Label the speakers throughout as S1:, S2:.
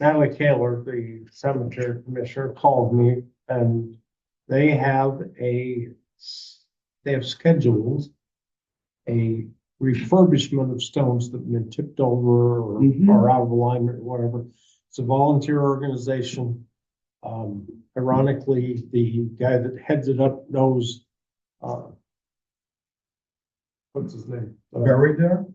S1: Natalie Taylor, the cemetery commissioner, called me and they have a, s- they have scheduled a refurbishment of stones that have been tipped over or
S2: Mhm.
S1: are out of alignment, or whatever. It's a volunteer organization. Um, ironically, the guy that heads it up knows, uh, what's his name? Uh,
S3: Buried there?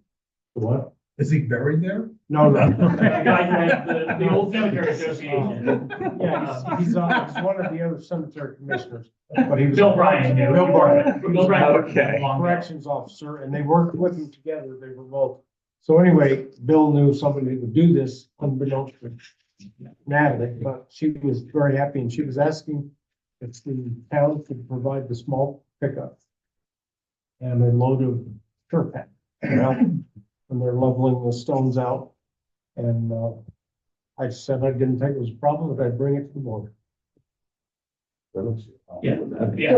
S1: What?
S3: Is he buried there?
S1: No, no.
S4: The guy who had the, the old cemetery association.
S1: Yeah, uh, he's, he's on, he's one of the other cemetery commissioners, but he was.
S4: Bill Bryan. yeah,
S1: Bill Bryan,
S4: Bill Bryan.
S3: Okay.
S4: Long back.
S1: corrections officer, and they worked with him together, they were both. So anyway, Bill knew somebody who would do this unbeknownst to Natalie, but she was very happy and she was asking if the town could provide the small pickup and a load of dirt pack, you know, and they're leveling the stones out. And, uh, I said I didn't think it was a problem, but I'd bring it to the board.
S4: Yeah, yeah,
S5: So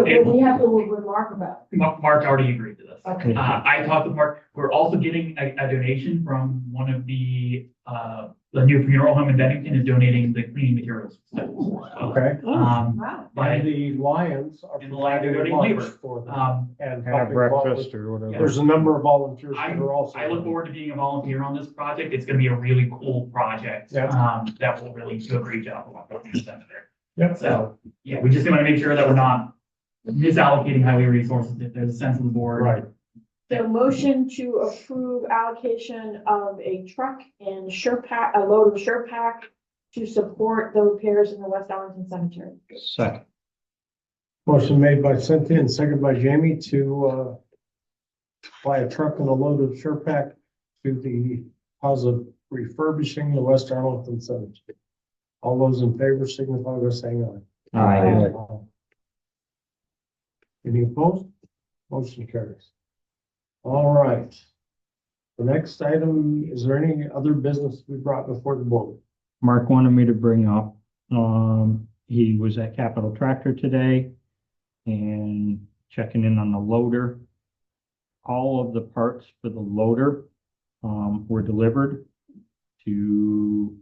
S5: then
S4: and
S5: we have to remark about.
S4: Mark, Mark already agreed to this.
S5: Okay.
S4: Uh, I talked with Mark, we're also getting a, a donation from one of the, uh, the new funeral home in Bennington is donating the cleaning materials.
S1: Okay.
S4: Um,
S5: Wow.
S1: And
S4: by,
S1: the Lions are.
S4: And the Lions are
S1: providing
S4: donating
S1: lunch
S4: labor.
S1: For them.
S4: um,
S1: And
S2: Have
S1: helping volunteer-
S2: breakfast or whatever.
S1: There's a number of volunteers that are also.
S4: I look forward to being a volunteer on this project. It's gonna be a really cool project.
S1: Yeah.
S4: Um, that will really do a great job of what we're doing there.
S1: Yep.
S4: So, yeah, we just wanna make sure that we're not misallocating highway resources if there's a sense of the board.
S1: Right.
S5: So motion to approve allocation of a truck and SurePac, a load of SurePac to support the repairs in the West Arlington Cemetery.
S2: Second.
S1: Motion made by Cynthia and seconded by Jamie to, uh, buy a truck and a load of Surepac to the cause of refurbishing the West Arlington Cemetery. All those in favor signify by saying aye.
S2: Uh,
S1: Any opposed? Motion carries. All right. The next item, is there any other business we brought before the board?
S2: Mark wanted me to bring up, um, he was at Capital Tractor today and checking in on the loader. All of the parts for the loader, um, were delivered to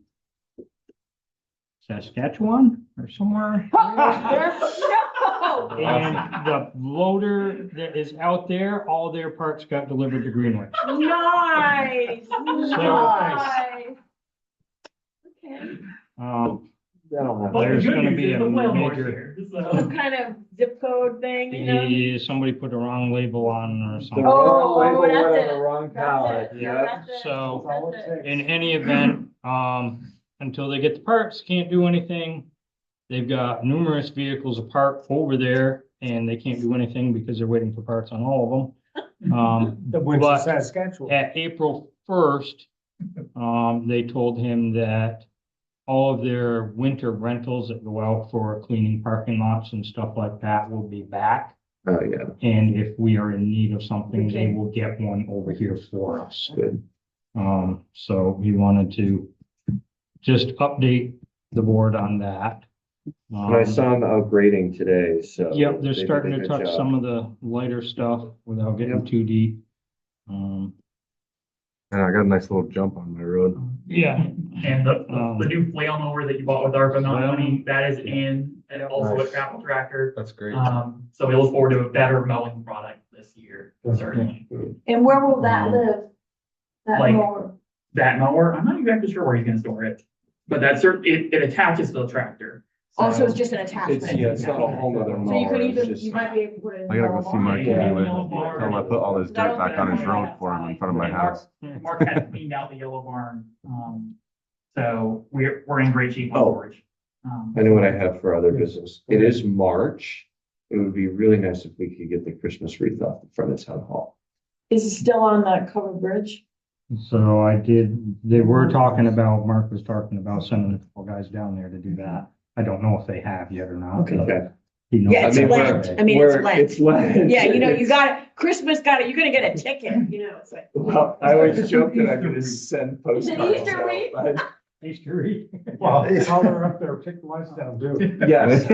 S2: Saskatchewan or somewhere.
S5: No.
S2: And the loader that is out there, all their parts got delivered to Greenwich.
S5: Nice, nice. Okay,
S2: Um,
S4: But the
S2: There's
S4: good
S2: gonna
S4: news
S2: be
S4: is
S2: a
S4: the whale door's
S2: major- Oh,
S4: here,
S5: some
S4: so-
S5: kind of zip code thing, you know?
S2: he- somebody put the wrong label on or something.
S5: Oh, oh, that's
S6: went on
S5: it.
S6: the wrong pallet,
S5: That's it.
S6: yeah.
S5: That's it.
S2: So-
S5: That's it.
S2: In any event, um, until they get the parts, can't do anything. They've got numerous vehicles apart over there and they can't do anything because they're waiting for parts on all of them. Um,
S1: That went
S2: But-
S1: to Saskatchewan.
S2: at April first, um, they told him that all of their winter rentals that go out for cleaning parking lots and stuff like that will be back.
S6: Oh, yeah,
S2: And if we are in need of something, they
S5: Okay.
S2: will get one over here for us.
S6: good.
S2: Um, so we wanted to just update the board on that.
S6: And I
S2: Um,
S6: saw them upgrading today, so.
S2: Yep, they're
S6: they did a
S2: starting to
S6: good
S2: touch
S6: job.
S2: some of the lighter stuff without getting
S6: Yep.
S2: too deep. Um,
S7: And I got a nice little jump on my road.
S2: yeah,
S4: And the, the- the new flail mower that you bought with ARPA
S2: Flail.
S4: money, that is in, and also a
S7: Nice.
S4: travel tractor.
S7: That's great.
S4: Um, so we look forward to a better mowing product this year, certainly.
S5: And where will that live? That
S4: Like-
S5: mower?
S4: That mower, I'm not exactly sure where he's gonna store it, but that cer, it, it attaches to the tractor. So-
S5: Also, it's just an attachment.
S6: It's, yeah, it's not a whole nother
S5: So you
S6: mower,
S5: could
S6: it's
S5: even,
S6: just,
S5: you might be able to put it in.
S7: I gotta go see Mike
S4: Yeah.
S7: anyway. Tell him I put all this dirt back on his road for him in front of my house.
S5: Hmm.
S4: Mark had cleaned out the yellow barn, um, so we're, we're in great shape on
S6: Oh.
S4: storage. Um,
S6: I know what I have for other business. It is March. It would be really nice if we could get the Christmas wreath off the front of town hall.
S5: Is it still on the covered bridge?
S2: so I did, they were talking about, Mark was talking about sending a couple guys down there to do that. I don't know if they have yet or not. but
S6: Okay.
S2: he knows
S5: Yeah,
S6: it's
S2: about
S6: Lent.
S2: it.
S5: I mean, it's
S6: Where-
S5: Lent.
S6: It's Lent.
S5: Yeah, you know, you got, it. Christmas got it, you're gonna get a ticket, you know, it's like.
S6: Well, I always joke that I'm gonna send
S5: Is it
S6: postcards
S5: Easter
S6: out,
S5: wreath?
S6: but-
S2: Easter Eve.
S1: Well, while they're up there, take the lights down, do.
S6: Yes.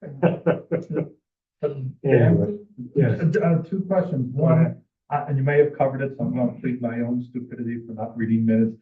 S6: please.
S2: Um,
S1: Anyway, yes.
S3: Uh, two questions.
S1: Go ahead.
S3: One, uh, and you may have covered it, so I'm gonna plead my own stupidity for not reading minutes.